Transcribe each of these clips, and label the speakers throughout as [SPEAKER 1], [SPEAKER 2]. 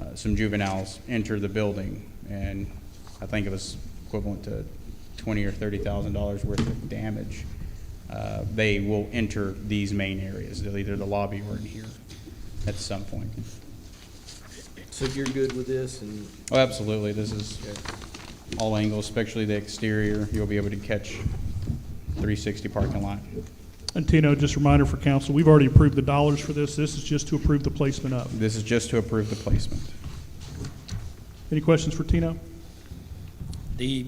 [SPEAKER 1] Uh, some juveniles enter the building, and I think it was equivalent to twenty or thirty thousand dollars worth of damage. Uh, They will enter these main areas, either the lobby or in here at some point.
[SPEAKER 2] So you're good with this and,
[SPEAKER 1] Oh, absolutely, this is
[SPEAKER 2] okay.
[SPEAKER 1] all angles, especially the exterior, you'll be able to catch three sixty parking lot.
[SPEAKER 3] And Tino, just a reminder for council, we've already approved the dollars for this. This is just to approve the placement of.
[SPEAKER 1] This is just to approve the placement.
[SPEAKER 3] Any questions for Tino?
[SPEAKER 4] The,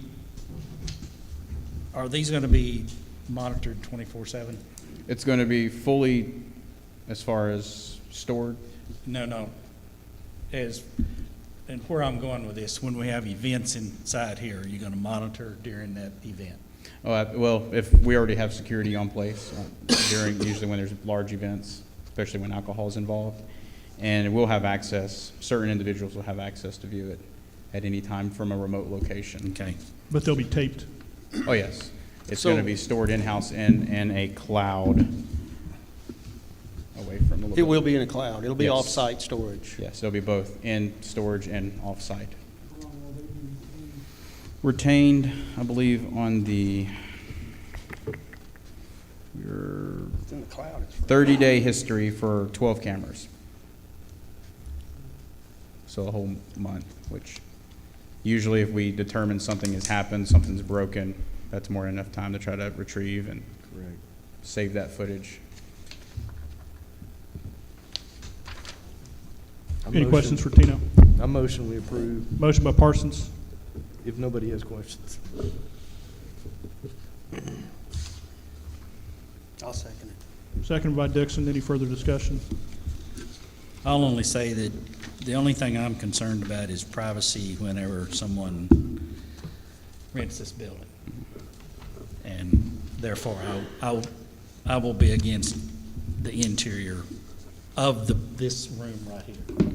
[SPEAKER 4] are these going to be monitored 24/7?
[SPEAKER 1] It's going to be fully, as far as stored,
[SPEAKER 4] No, no. As, and where I'm going with this, when we have events inside here, are you going to monitor during that event?
[SPEAKER 1] Oh, uh, well, if we already have security on place uh, during, usually when there's large events, especially when alcohol is involved. And we'll have access, certain individuals will have access to view it at any time from a remote location.
[SPEAKER 4] Okay.
[SPEAKER 3] But they'll be taped.
[SPEAKER 1] Oh, yes. It's
[SPEAKER 5] So-
[SPEAKER 1] going to be stored in-house in, in a cloud away from the.
[SPEAKER 5] It
[SPEAKER 1] building.
[SPEAKER 5] will be in a cloud. It'll be
[SPEAKER 1] Yes.
[SPEAKER 5] off-site storage.
[SPEAKER 1] Yes, it'll be both in storage and off-site. Retained, I believe, on the, your
[SPEAKER 5] It's in the cloud.
[SPEAKER 1] 30-day history for 12 cameras. So a whole month, which usually if we determine something has happened, something's broken, that's more than enough time to try to retrieve and save that footage.
[SPEAKER 2] I
[SPEAKER 3] Any
[SPEAKER 2] motion-
[SPEAKER 3] questions for Tino?
[SPEAKER 2] I motion we approve,
[SPEAKER 3] Motion by Parsons,
[SPEAKER 2] if nobody has questions.
[SPEAKER 5] I'll second it.
[SPEAKER 3] second by Dixon. Any further discussion?
[SPEAKER 4] I'll only say that the only thing I'm concerned about is privacy whenever someone rents this building. And therefore, I, I, I will be against the interior of the, this room right here.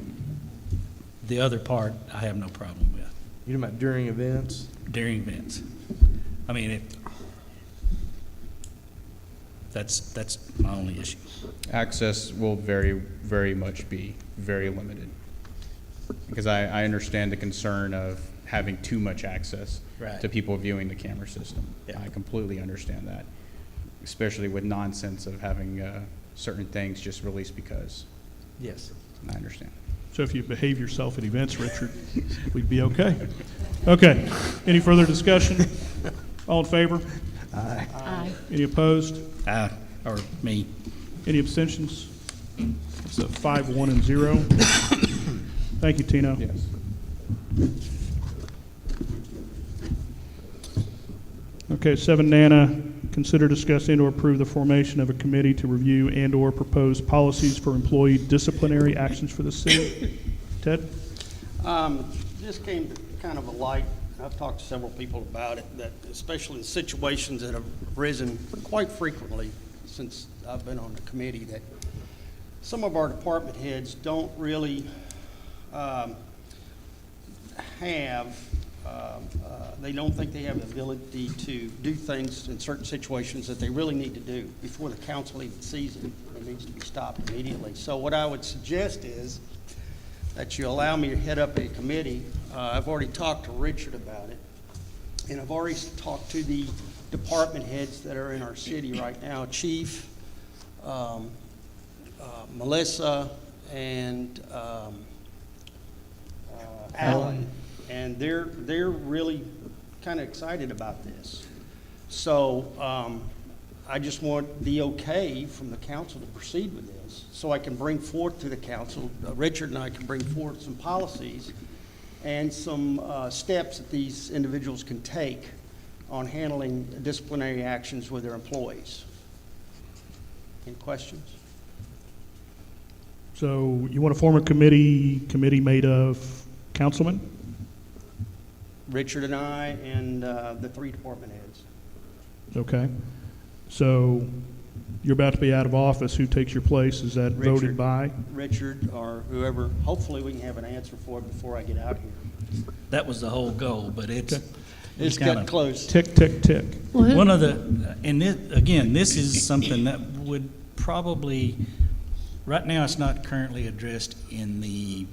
[SPEAKER 4] The other part, I have no problem with
[SPEAKER 2] You're talking about during events?
[SPEAKER 4] during events. I mean, it, that's, that's my only issue.
[SPEAKER 1] access will very, very much be very limited. Because I, I understand the concern of having too much access
[SPEAKER 4] Right.
[SPEAKER 1] to people viewing the camera system.
[SPEAKER 4] Yeah.
[SPEAKER 1] I completely understand that, especially with nonsense of having uh, certain things just released because.
[SPEAKER 4] Yes.
[SPEAKER 1] I understand.
[SPEAKER 3] So if you behave yourself at events, Richard, we'd be okay. Okay. Any further discussion? All in favor?
[SPEAKER 6] Aye.
[SPEAKER 3] Any opposed?
[SPEAKER 4] I, or me.
[SPEAKER 3] Any abstentions? It's a five, one, and zero. Thank you, Tino.
[SPEAKER 1] Yes.
[SPEAKER 3] Okay, seven Nana, consider discuss and/or approve the formation of a committee to review and/or propose policies for employee disciplinary actions for the city. Ted?
[SPEAKER 7] Um, This came to kind of a light, and I've talked to several people about it, that especially in situations that have arisen quite frequently since I've been on the committee, that some of our department heads don't really um, have, um, uh, they don't think they have the ability to do things in certain situations that they really need to do before the council even sees it. It needs to be stopped immediately. So what I would suggest is, that you allow me to head up a committee. Uh, I've already talked to Richard about it, and I've already talked to the department heads that are in our city right now, Chief, um, uh, Melissa, and um, uh, Alan. And they're, they're really kind of excited about this. So um, I just want the okay from the council to proceed with this, so I can bring forth to the council, uh, Richard and I can bring forth some policies and some uh, steps that these individuals can take on handling disciplinary actions with their employees. Any questions?
[SPEAKER 3] So you want to form a committee, committee made of councilmen?
[SPEAKER 7] Richard and I and uh, the three department heads.
[SPEAKER 3] Okay. So you're about to be out of office. Who takes your place? Is that voted
[SPEAKER 7] Richard.
[SPEAKER 3] by?
[SPEAKER 7] Richard or whoever, hopefully we can have an answer for it before I get out here.
[SPEAKER 4] That was the whole goal, but it's.
[SPEAKER 7] It's
[SPEAKER 4] kinda-
[SPEAKER 7] getting close.
[SPEAKER 3] Tick, tick, tick.
[SPEAKER 6] Well, who-
[SPEAKER 4] One of the, and this, again, this is something that would probably, right now, it's not currently addressed in the